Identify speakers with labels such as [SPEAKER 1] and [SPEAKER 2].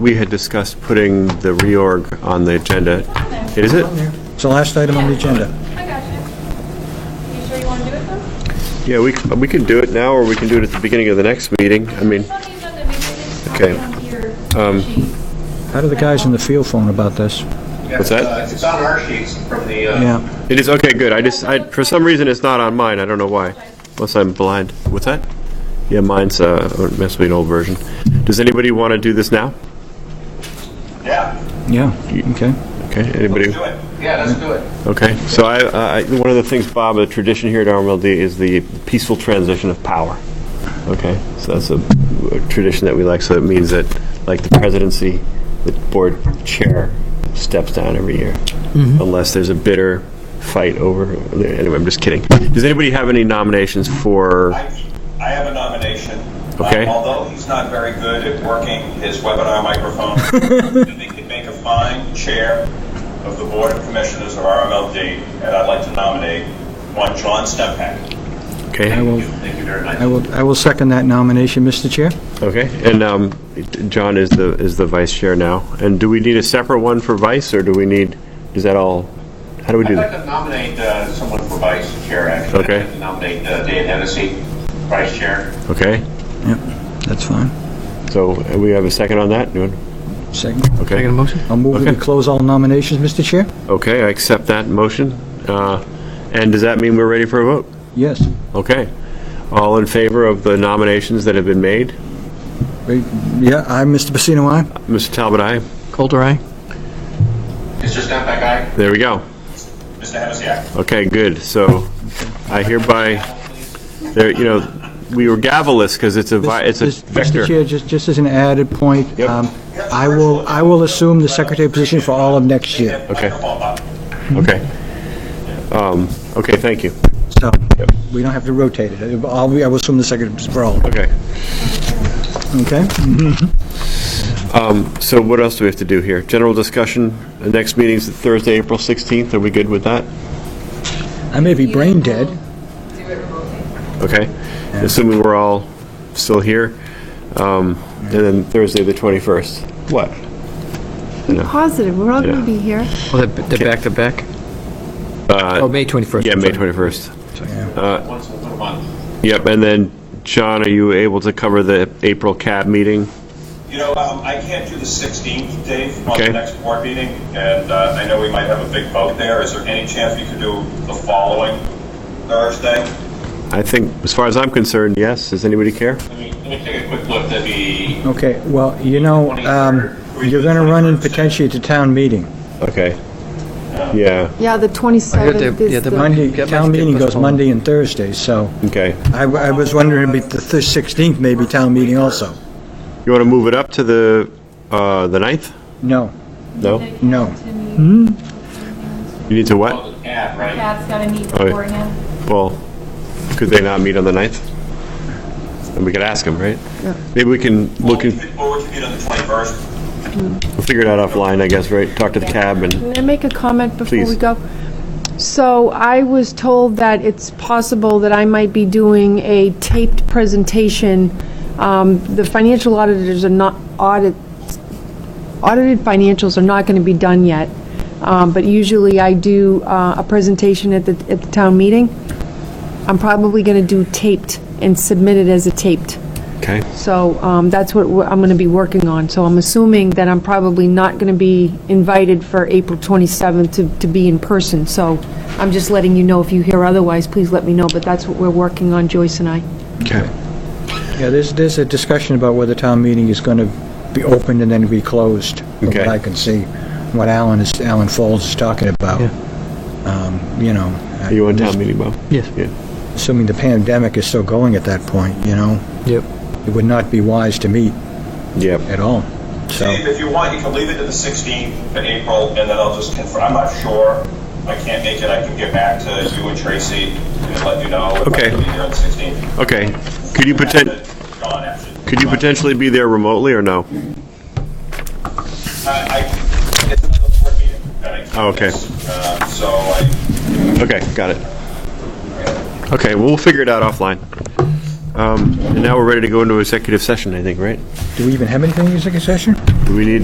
[SPEAKER 1] We had discussed putting the reorg on the agenda. Is it?
[SPEAKER 2] It's the last item on the agenda.
[SPEAKER 3] I got you. You sure you want to do it though?
[SPEAKER 1] Yeah, we, we can do it now, or we can do it at the beginning of the next meeting. I mean,
[SPEAKER 3] It's on the agenda, maybe it's
[SPEAKER 1] Okay.
[SPEAKER 3] on your
[SPEAKER 1] Um,
[SPEAKER 3] sheet.
[SPEAKER 2] How do the guys in the field phone about this?
[SPEAKER 1] What's that?
[SPEAKER 4] Uh, It's on our sheets from the, uh,
[SPEAKER 2] Yeah,
[SPEAKER 1] it is, okay, good. I just, I, for some reason, it's not on mine. I don't know why. Unless I'm blind. What's that? Yeah, mine's, uh, must be an old version. Does anybody want to do this now?
[SPEAKER 4] yeah,
[SPEAKER 2] yeah, okay.
[SPEAKER 1] Okay, anybody?
[SPEAKER 4] do it. Yeah, let's do it.
[SPEAKER 1] Okay, so I, I, one of the things, Bob, a tradition here at RMLD is the peaceful transition of power. Okay, so that's a, a tradition that we like, so it means that, like, the presidency, the board chair steps down every year,
[SPEAKER 2] Mm-hmm.
[SPEAKER 1] unless there's a bitter fight over, anyway, I'm just kidding. Does anybody have any nominations for,
[SPEAKER 4] I I have a nomination.
[SPEAKER 1] Okay.
[SPEAKER 4] Um, Although he's not very good at working his webinar microphone, I think he'd make a fine chair of the Board of Commissioners of RMLD, and I'd like to nominate one John Stempak.
[SPEAKER 2] I
[SPEAKER 1] okay,
[SPEAKER 2] will,
[SPEAKER 4] Thank you very much.
[SPEAKER 2] I will, I will second that nomination, Mr. Chair.
[SPEAKER 1] okay, and, um, John is the, is the vice chair now, and do we need a separate one for vice, or do we need, is that all, how do we do
[SPEAKER 4] I'd
[SPEAKER 1] that?
[SPEAKER 4] like to nominate uh, someone for vice chair, actually.
[SPEAKER 1] Okay.
[SPEAKER 4] I'd like to Nominate uh, Dave Hennessy, vice chair.
[SPEAKER 1] Okay,
[SPEAKER 2] Yep, that's fine.
[SPEAKER 1] so uh, we have a second on that? Anyone?
[SPEAKER 2] Second.
[SPEAKER 1] Okay.
[SPEAKER 2] I'll move that
[SPEAKER 1] Okay.
[SPEAKER 2] we close all nominations, Mr. Chair?
[SPEAKER 1] Okay, I accept that motion. Uh, And does that mean we're ready for a vote?
[SPEAKER 2] Yes.
[SPEAKER 1] Okay. All in favor of the nominations that have been made?
[SPEAKER 2] Wait, Yeah, I, Mr. Pacino, aye?
[SPEAKER 1] Mr. Talbot, aye.
[SPEAKER 5] Coulter, aye.
[SPEAKER 4] Mr. Stempak, aye.
[SPEAKER 1] There we go.
[SPEAKER 4] Mr. Hennessy, aye.
[SPEAKER 1] Okay, good. So I hereby, there, you know, we were gavelous because it's a, vi- it's a
[SPEAKER 2] This- this- Mr.
[SPEAKER 1] vector.
[SPEAKER 2] Chair, just, just as an added point,
[SPEAKER 1] Yep.
[SPEAKER 2] um, I will, I will assume the secretary position for all of next year.
[SPEAKER 1] Okay.
[SPEAKER 4] Microphone, Bob.
[SPEAKER 1] Okay. Um, Okay, thank you.
[SPEAKER 2] So, we don't have to rotate it. I'll, be- I will assume the secretary position for all,
[SPEAKER 1] Okay.
[SPEAKER 2] okay?
[SPEAKER 1] So what else do we have to do here? General discussion, the next meeting's Thursday, April 16th. Are we good with that?
[SPEAKER 2] I may be brain dead.
[SPEAKER 3] Do it remotely.
[SPEAKER 1] Okay, assuming we're all still here, um, and then Thursday, the 21st. What? No.
[SPEAKER 6] Positive, we're all going
[SPEAKER 1] Yeah.
[SPEAKER 6] to be here.
[SPEAKER 5] Well, they're they're back to back? Oh, May 21st.
[SPEAKER 1] Uh, Yeah,
[SPEAKER 5] I'm
[SPEAKER 1] May
[SPEAKER 5] sorry.
[SPEAKER 1] 21st.
[SPEAKER 4] Once a little month.
[SPEAKER 1] Yep, and then, John, are you able to cover the April CAB meeting?
[SPEAKER 4] You know, um, I can't do the 16th, Dave, on
[SPEAKER 1] Okay.
[SPEAKER 4] the next board meeting, and uh, I know we might have a big vote there. Is there any chance we could do the following Thursday?
[SPEAKER 1] I think, as far as I'm concerned, yes. Does anybody care?
[SPEAKER 4] Let me, let me take a quick look, that'd be,
[SPEAKER 2] Okay, well, you know, um, you're going to run in potentially to town meeting.
[SPEAKER 1] Okay. Yeah,
[SPEAKER 6] Yeah, the 27th
[SPEAKER 5] the- yeah,
[SPEAKER 6] is
[SPEAKER 5] the
[SPEAKER 6] the,
[SPEAKER 2] Monday,
[SPEAKER 5] Get
[SPEAKER 2] town
[SPEAKER 5] my- get
[SPEAKER 2] meeting goes
[SPEAKER 5] postponed.
[SPEAKER 2] Monday and Thursday, so
[SPEAKER 1] okay.
[SPEAKER 2] I I was wondering, it'd be the thir- 16th maybe town meeting also.
[SPEAKER 1] You want to move it up to the, uh, the 9th?
[SPEAKER 2] No,
[SPEAKER 1] No?
[SPEAKER 2] no.
[SPEAKER 1] You need to what?
[SPEAKER 4] oh, the ad, right?
[SPEAKER 3] Pat's got to meet
[SPEAKER 1] yeah.
[SPEAKER 3] beforehand.
[SPEAKER 1] Well, could they not meet on the 9th? And we could ask them, right? Maybe we can look in...
[SPEAKER 4] Or would you meet on the 21st?
[SPEAKER 1] We'll figure it out offline, I guess, right? Talk to the cab and,
[SPEAKER 6] can I make a comment before we
[SPEAKER 1] Please.
[SPEAKER 6] go? So I was told that it's possible that I might be doing a taped presentation. Um, The financial auditors are not, audit, audited financials are not going to be done yet, Um, but usually I do uh, a presentation at the, at the town meeting. I'm probably going to do taped and submit it as a taped.
[SPEAKER 1] okay,
[SPEAKER 6] So um, that's what we're- I'm going to be working on. So I'm assuming that I'm probably not going to be invited for April 27th to to be in person. So I'm just letting you know, if you hear otherwise, please let me know, but that's what we're working on, Joyce and I.
[SPEAKER 1] okay.
[SPEAKER 2] Yeah, there's, there's a discussion about whether town meeting is going to be opened and then be closed, from
[SPEAKER 1] Okay.
[SPEAKER 2] what I can see, what Alan is, Alan Foles is talking about.
[SPEAKER 5] Yeah.
[SPEAKER 2] Um, You know.
[SPEAKER 1] Are you on town meeting, Bob?
[SPEAKER 5] Yes.
[SPEAKER 1] Yeah.
[SPEAKER 2] Assuming the pandemic is still going at that point, you know,
[SPEAKER 5] Yep.
[SPEAKER 2] it would not be wise to meet
[SPEAKER 1] Yeah.
[SPEAKER 2] at all, so.
[SPEAKER 4] Dave, if you want, you can leave it to the 16th of April, and then I'll just confirm, I'm not sure. If I can't make it, I can get back to you and Tracy and let you know. if I
[SPEAKER 1] Okay.
[SPEAKER 4] can be there on the 16th.
[SPEAKER 1] Okay. Could you poten,
[SPEAKER 4] John, actually.
[SPEAKER 1] could you potentially be there remotely or no?
[SPEAKER 4] I, I- it's another board meeting. that I-
[SPEAKER 1] Oh, okay.
[SPEAKER 4] Uh, So I,
[SPEAKER 1] Okay, got it. Okay, we'll figure it out offline.
[SPEAKER 2] Um, And now we're ready to go into executive session, I think, right?
[SPEAKER 1] Do we even have anything in executive session?
[SPEAKER 2] Do we need